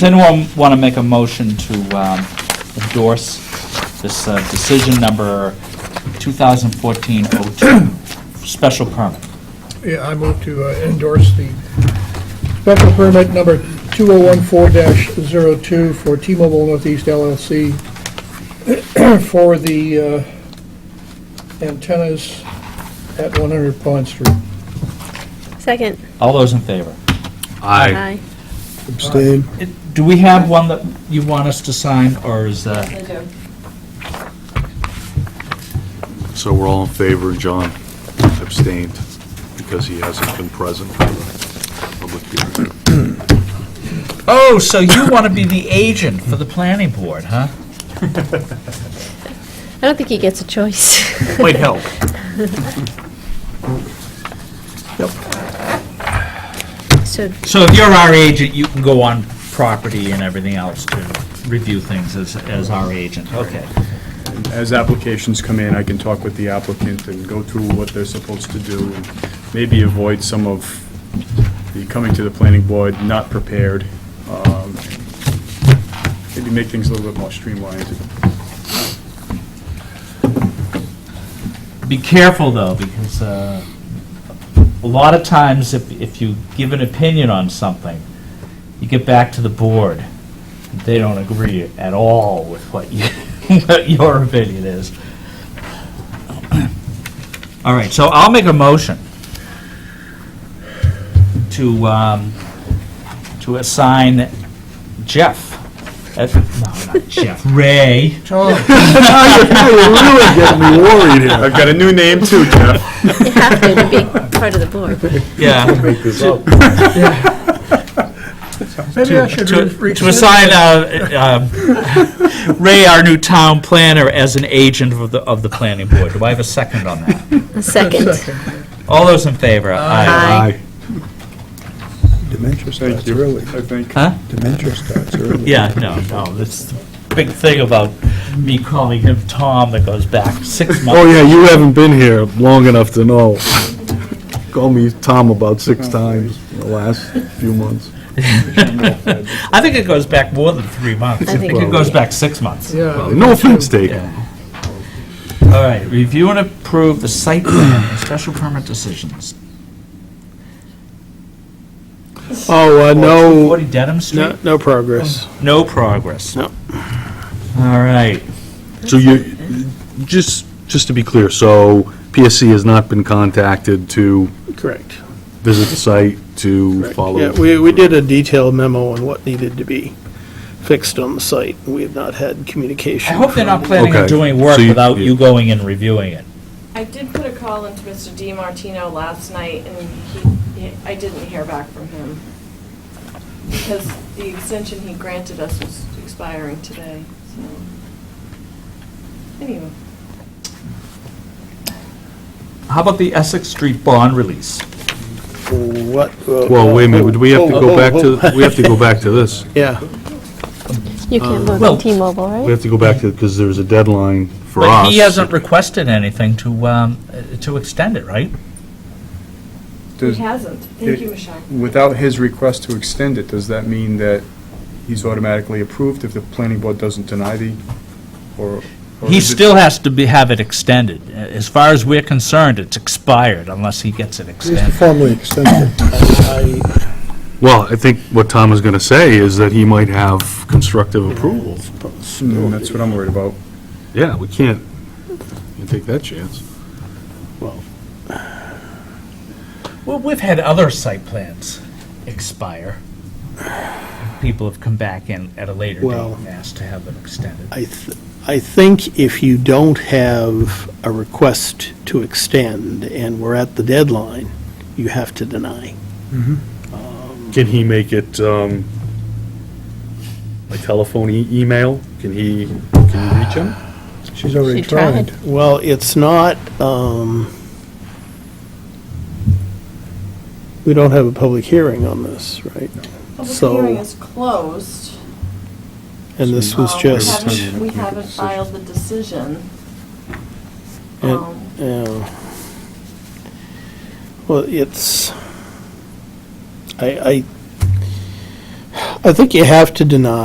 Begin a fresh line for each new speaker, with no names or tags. Then we'll want to make a motion to um, endorse this uh, decision number 2014-02, special permit.
Yeah, I move to uh, endorse the special permit number 2014-02 for T-Mobile Northeast LLC for the uh, antennas at 100 Pond Street.
Second.
All those in favor?
Aye.
Abstain.
It- Do we have one that you want us to sign, or is that,
I do.
So we're all in favor, John abstained because he hasn't been present for the public hearing.
oh, so you want to be the agent for the planning board, huh?
I don't think he gets a choice.
Might help.
So,
So if you're our agent, you can go on property and everything else to review things as, as our agent, okay.
As applications come in, I can talk with the applicant and go through what they're supposed to do, and maybe avoid some of the coming to the planning board not prepared. um, Maybe make things a little bit more streamlined.
Be careful, though, because uh, a lot of times, if, if you give an opinion on something, you get back to the board, they don't agree at all with what you, what your opinion is. All right, so I'll make a motion to, um, to assign Jeff, uh, no, not Jeff, Ray,
I've got a new name too, Jeff.
you have to to be part of the board.
yeah.
Maybe I should
to-
re-
To assign uh, uh, Ray, our new town planner, as an agent of the, of the planning board. Do I have a second on that?
A second.
All those in favor? Aye.
Aye.
Dementia starts
Thank you.
early.
I think.
Huh?
Dementia starts early.
Yeah, no, no, this is the big thing about me calling him Tom that goes back six
Oh,
months.
yeah, you haven't been here long enough to know. Call me Tom about six times in the last few months.
I think it goes back more than three months. I
I think
think it
it
goes back six months.
Yeah.
No offense taken.
Yeah. All right, review and approve the site plan and special permit decisions.
Oh, uh, no,
40 Dedham Street?
no, no progress.
No progress.
No.
All right.
So you, just, just to be clear, so PSC has not been contacted to
Oh.
Correct.
visit the site to
Correct.
follow?
Yeah, we, we did a detailed memo on what needed to be fixed on the site. We have not had
I
communication.
hope they're not planning on
Okay,
doing work
so you-
without you going and reviewing it.
I did put a call into Mr. Di Martino last night, and he, he- I didn't hear back from him. Because the extension he granted us was expiring today, so. Anyway,
How about the Essex Street bond release?
What?
Well, wait a minute, would we have to go back to, we have to go back to this.
Yeah,
You can't vote
Well-
on T-Mobile, right?
We have to go back to, because there's a deadline for us.
But he hasn't requested anything to, um, uh, to extend it, right?
he
Does-
hasn't. Thank you, Michelle.
Without his request to extend it, does that mean that he's automatically approved if the planning board doesn't deny the, or? or
He
is it-
still has to be, have it extended. A- As far as we're concerned, it's expired unless he gets it
Just to
extended.
formally extend it.
I, I-
Well, I think what Tom is going to say is that he might have constructive approval.
Hmm, That's what I'm worried about.
Yeah, we can't, can't take that chance.
Well, we've had other site plans expire. People have come back in at a later date
Well-
and asked to have them extended.
I, th- I think if you don't have a request to extend and we're at the deadline, you have to deny.
Can he make it, um, by telephone, e- email? Can he, can you reach him?
She's already
She tried.
tried.
Well, it's not, um, we don't have a public hearing on this, right?
Public
So-
hearing is closed.
And this was
Um, we
just,
haven't- We haven't filed the decision.
And-
Um,
yeah. Well, it's, I, I, I think you have to deny